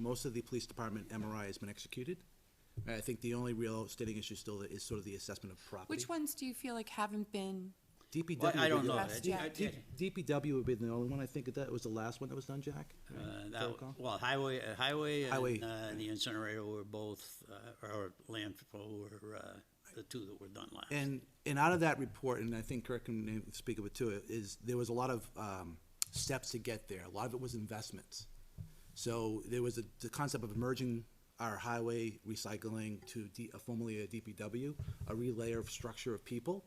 most of the police department MRI has been executed. I think the only real standing issue still is sort of the assessment of property. Which ones do you feel like haven't been, DPW. Well, I would don't be the- know. Last I think- I Jack. think, DPW would be the only one, I think, that was the last one that was done, Jack? uh, Right, that- fair call? Well, highway, uh, highway Highway. and uh, the incinerator were both, uh, or landfill were uh, the two that were done last. And, and out of that report, and I think Kirk can speak of it too, is there was a lot of, um, steps to get there. A lot of it was investments. So there was a, the concept of merging our highway recycling to D, formerly a DPW, a relayer of structure of people.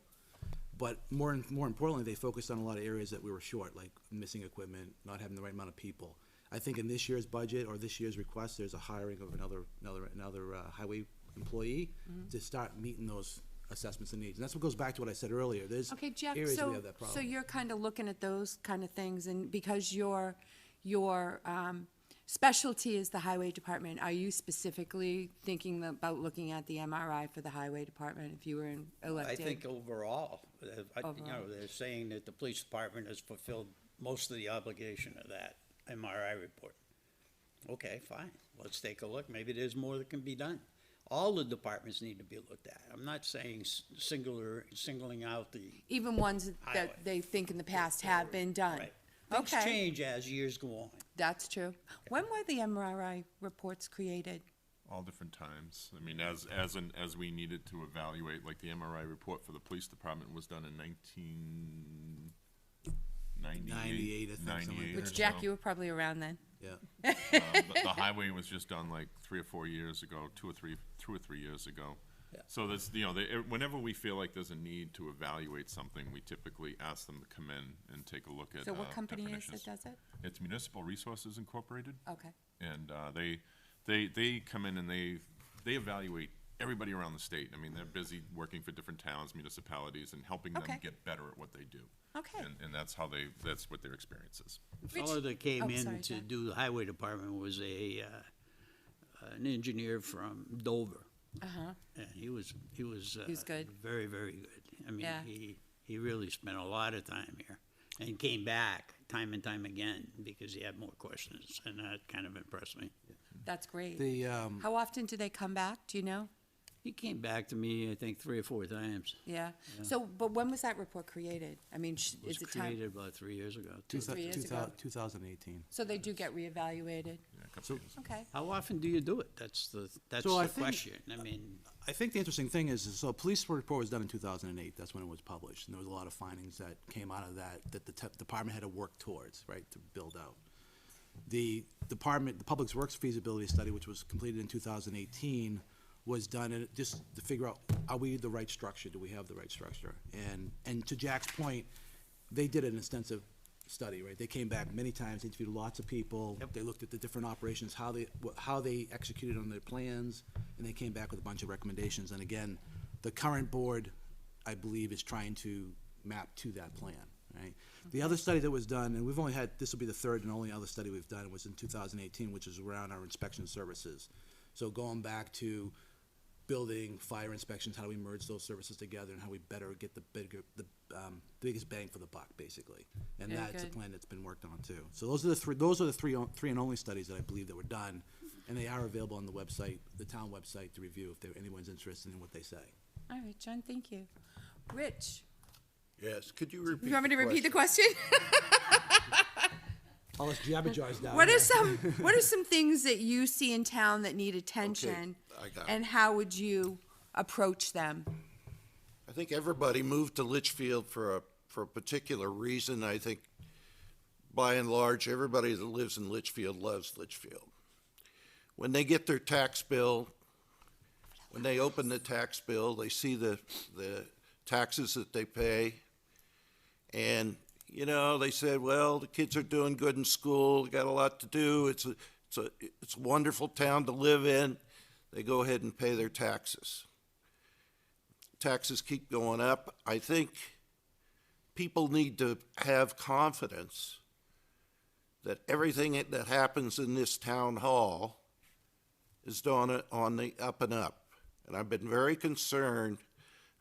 But more, and more importantly, they focused on a lot of areas that we were short, like missing equipment, not having the right amount of people. I think in this year's budget or this year's request, there's a hiring of another, another, another uh, highway employee Mm-hmm. to start meeting those assessments and needs. And that's what goes back to what I said earlier. There's okay, Jeff, areas we so, have that so problem. you're kind of looking at those kind of things, and because your, your, um, specialty is the highway department, are you specifically thinking about looking at the MRI for the highway department if you were in- I elected? think overall, uh, I- you know, Overall. they're saying that the police department has fulfilled most of the obligation of that MRI report. Okay, fine, let's take a look, maybe there's more that can be done. All the departments need to be looked at. I'm not saying s- singular, singling out the Even ones Highway. that they think in the past have been done? Right. Things Okay, change as years go on. that's true. When were the MRI reports created? all different times. I mean, as, as, an as we needed to evaluate, like the MRI report for the police department was done in nineteen ninety-eight. 98, I think, something like 98 that. or Which, Jack, so. you were probably around then. Yeah. Um, the, the highway was just done like three or four years ago, two or three, two or three years ago. Yeah. So that's, you know, they, e, whenever we feel like there's a need to evaluate something, we typically ask them to come in and take a look at, So uh, what company is definitions. that Oh, does it? It's Municipal Resources Incorporated. Okay. and uh, they they they come in and they they evaluate everybody around the state. I mean, they're busy working for different towns, municipalities, and helping Okay. them get better at what they do. Okay. And, and that's how they that's what their experience is. fellow that came oh, in sorry, to Jack. do the highway department was a, uh, an engineer from Dover. Uh-huh. And he was, he was. He was uh, good. Very, very good. I mean, Yeah. he, he really spent a lot of time here and came back time and time again because he had more questions and that kind of impressed me. That's great. The, um, How often do they come back? Do you know? He came back to me, I think, three or four times. Yeah. So, but when was that report created? I mean, sh- It was is it time? created about three years ago. two too. thou- Three years two ago. thou- 2018. So they do get reevaluated. Yeah, a couple So- years. Okay. How often do you do it? That's the, that's So I the think- question. I mean. I think the interesting thing is, is so a police report was done in two thousand and eight, that's when it was published, and there was a lot of findings that came out of that, that the te- department had to work towards, right, to build out. The department, the Public Works feasibility study, which was completed in two thousand eighteen, was done in- just to figure out, are we the right structure, do we have the right structure? And, and to Jack's point, they did an extensive study, right? They came back many times, interviewed lots of people. They looked at the different operations, how they, wh- how they executed on their plans, and they came back with a bunch of recommendations. And again, the current board, I believe, is trying to map to that plan, right? The other study that was done, and we've only had, this will be the third and only other study we've done, was in two thousand eighteen, which is around our inspection services. So going back to building, fire inspections, how do we merge those services together and how we better get the bigger, the, um, the biggest bang for the buck, basically. And Very that's a good. plan that's been worked on too. So those are the three, those are the three, on- three and only studies that I believe that were done. And they are available on the website, the town website to review if there, anyone's interested in what they say. All right, John, thank you. Rich, Yes, could you repeat? you want me to repeat the question? All this jabberjaws down What are some, what are some things that you see in town that need attention? I got it. And how would you approach them? I think everybody moved to Litchfield for a, for a particular reason. I think by and large, everybody that lives in Litchfield loves Litchfield. When they get their tax bill, when they open the tax bill, they see the, the taxes that they pay. And, you know, they said, well, the kids are doing good in school, got a lot to do. It's a, it's a, it's a wonderful town to live in. They go ahead and pay their taxes taxes keep going up. I think people need to have confidence that everything that happens in this town hall is done on the up and up. And I've been very concerned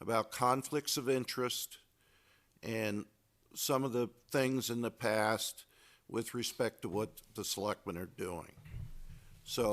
about conflicts of interest and some of the things in the past with respect to what the selectmen are doing. So